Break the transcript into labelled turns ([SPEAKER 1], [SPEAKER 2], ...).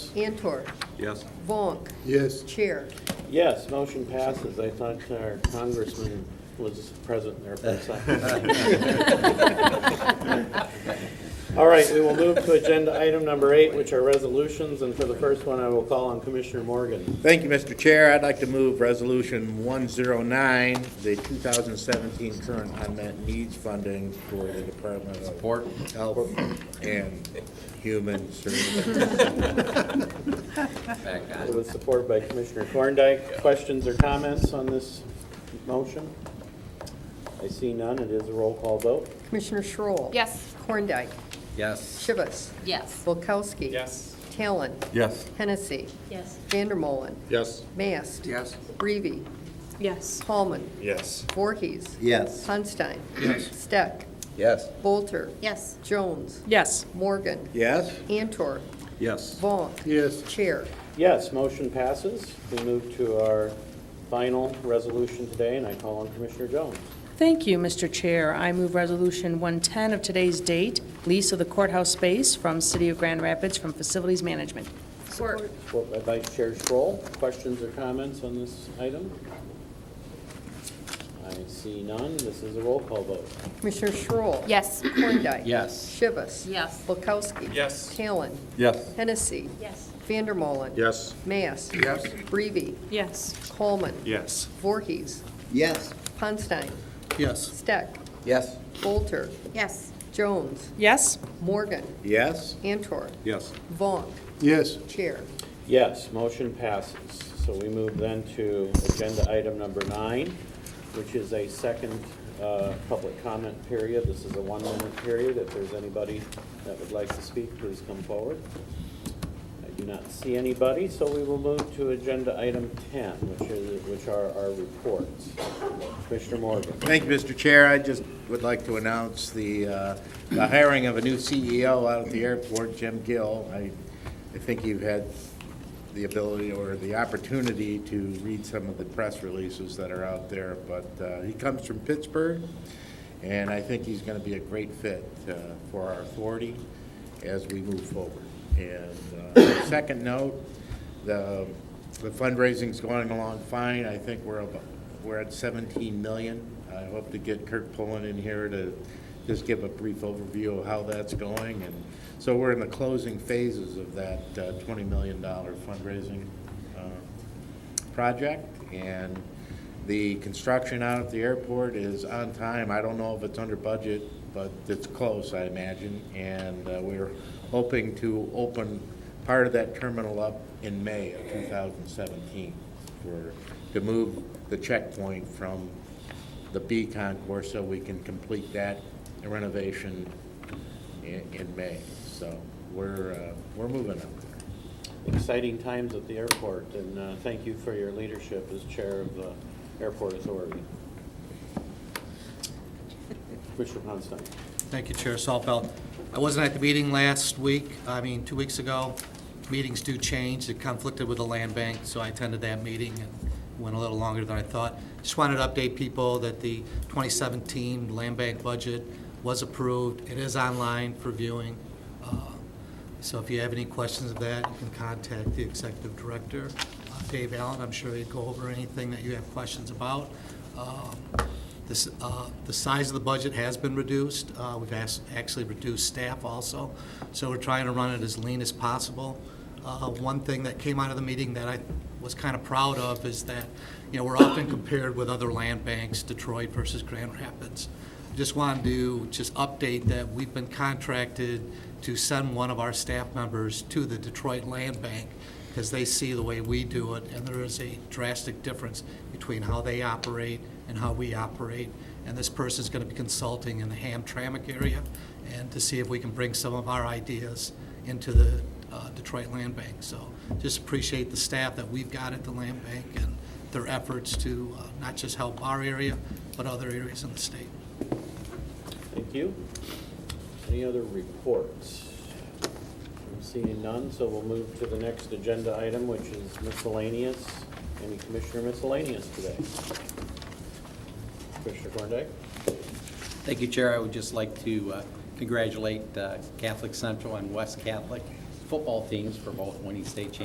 [SPEAKER 1] Antor,
[SPEAKER 2] Yes.
[SPEAKER 1] Vonk,
[SPEAKER 3] Yes.
[SPEAKER 1] Chair.
[SPEAKER 4] Yes, motion passes. I thought our congressman was present there for a second. All right, we will move to agenda item number eight, which are resolutions, and for the first one, I will call on Commissioner Morgan.
[SPEAKER 5] Thank you, Mr. Chair. I'd like to move Resolution 109, the 2017 current unmet needs funding for the Department of Support. Health and Human Services.
[SPEAKER 4] It was supported by Commissioner Thorndike. Questions or comments on this motion? I see none. It is a roll call vote.
[SPEAKER 1] Commissioner Schroll.
[SPEAKER 6] Yes.
[SPEAKER 1] Korndike.
[SPEAKER 2] Yes.
[SPEAKER 1] Shivas.
[SPEAKER 6] Yes.
[SPEAKER 1] Bulkowski. Talon.
[SPEAKER 2] Yes.
[SPEAKER 1] Hennessy.
[SPEAKER 6] Yes.
[SPEAKER 1] Vandermolen.
[SPEAKER 3] Yes.
[SPEAKER 1] Mast.
[SPEAKER 2] Yes.
[SPEAKER 1] Reavy.
[SPEAKER 6] Yes.
[SPEAKER 1] Hallman.
[SPEAKER 3] Yes.
[SPEAKER 1] Voorhees.
[SPEAKER 2] Yes.
[SPEAKER 1] Sunstein. Steck.
[SPEAKER 2] Yes.
[SPEAKER 1] Bolter.
[SPEAKER 6] Yes.
[SPEAKER 1] Jones.
[SPEAKER 7] Yes.
[SPEAKER 1] Morgan.
[SPEAKER 5] Yes?
[SPEAKER 1] Antor.
[SPEAKER 2] Yes.
[SPEAKER 1] Vaughn.
[SPEAKER 3] Yes.
[SPEAKER 1] Chair.
[SPEAKER 4] Yes, motion passes. We move to our final resolution today, and I call on Commissioner Jones.
[SPEAKER 7] Thank you, Mr. Chair. I move Resolution 110 of today's date, lease of the courthouse space from City of Grand Rapids from Facilities Management.
[SPEAKER 6] Support.
[SPEAKER 4] Support by Vice Chair Schroll. Questions or comments on this item? I see none. This is a roll call vote.
[SPEAKER 1] Commissioner Schroll.
[SPEAKER 6] Yes.
[SPEAKER 1] Korndike.
[SPEAKER 2] Yes.
[SPEAKER 1] Shivas.
[SPEAKER 6] Yes.
[SPEAKER 1] Bulkowski.
[SPEAKER 3] Yes.
[SPEAKER 1] Talon.
[SPEAKER 2] Yes.
[SPEAKER 1] Hennessy.
[SPEAKER 6] Yes.
[SPEAKER 1] Vandermolen.
[SPEAKER 3] Yes.
[SPEAKER 1] Mast.
[SPEAKER 3] Yes.
[SPEAKER 1] Reavy.
[SPEAKER 7] Yes.
[SPEAKER 1] Hallman.
[SPEAKER 3] Yes.
[SPEAKER 1] Voorhees.
[SPEAKER 2] Yes.
[SPEAKER 1] Ponstein.
[SPEAKER 3] Yes.
[SPEAKER 1] Steck.
[SPEAKER 2] Yes.
[SPEAKER 1] Bolter.
[SPEAKER 6] Yes.
[SPEAKER 1] Jones.
[SPEAKER 7] Yes?
[SPEAKER 1] Morgan.
[SPEAKER 5] Yes?
[SPEAKER 1] Antor.
[SPEAKER 2] Yes.
[SPEAKER 1] Vaughn.
[SPEAKER 3] Yes.
[SPEAKER 1] Chair.
[SPEAKER 4] Yes, motion passes. So we move then to agenda item number nine, which is a second uh, public comment period. This is a one-minute period. If there's anybody that would like to speak, please come forward. I do not see anybody, so we will move to agenda item 10, which is, which are our reports. Commissioner Morgan.
[SPEAKER 5] Thank you, Mr. Chair. I just would like to announce the, uh, the hiring of a new CEO out at the airport, Jim Gill. I, I think you've had the ability or the opportunity to read some of the press releases that are out there, but uh, he comes from Pittsburgh, and I think he's going to be a great fit uh, for our authority as we move forward. And uh, second note, the the fundraising's going along fine. I think we're, about- we're at 17 million. I hope to get Kirk Pullen in here to just give a brief overview of how that's going. And so we're in the closing phases of that uh, $20 million fundraising uh, project. And the construction out at the airport is on time. I don't know if it's under budget, but it's close, I imagine. And uh, we're hoping to open part of that terminal up in May of 2017 for, to move the checkpoint from the B concourse so we can complete that renovation in, in May. So we're, uh, we're moving up there.
[SPEAKER 4] Exciting times at the airport, and uh, thank you for your leadership as Chair of the Airport Authority. Commissioner Ponstein.
[SPEAKER 8] Thank you, Chair Saltfeld. I wasn't at the meeting last week, I mean, two weeks ago. Meetings do change, it conflicted with the land bank, so I attended that meeting and went a little longer than I thought. Just wanted to update people that the 2017 land bank budget was approved. It is online for viewing. Uh, So if you have any questions of that, you can contact the executive director, uh, Dave Allen. I'm sure he'd go over anything that you have questions about. Um, this, uh, The size of the budget has been reduced. Uh, We've asked- actually reduced staff also, so we're trying to run it as lean as possible. Uh, One thing that came out of the meeting that I was kind of proud of is that, you know, we're often compared with other land banks, Detroit versus Grand Rapids. Just wanted to just update that we've been contracted to send one of our staff members to the Detroit Land Bank because they see the way we do it, and there is a drastic difference between how they operate and how we operate. And this person's going to be consulting in the Hamtramck area and to see if we can bring some of our ideas into the uh, Detroit Land Bank. So just appreciate the staff that we've got at the land bank and their efforts to uh, not just help our area, but other areas in the state.
[SPEAKER 4] Thank you. Any other reports? I'm seeing none, so we'll move to the next agenda item, which is miscellaneous. Any commissioner miscellaneous today? Commissioner Thorndike?
[SPEAKER 9] Thank you, Chair. I would just like to uh, congratulate uh, Catholic Central and West Catholic football teams for both winning state championships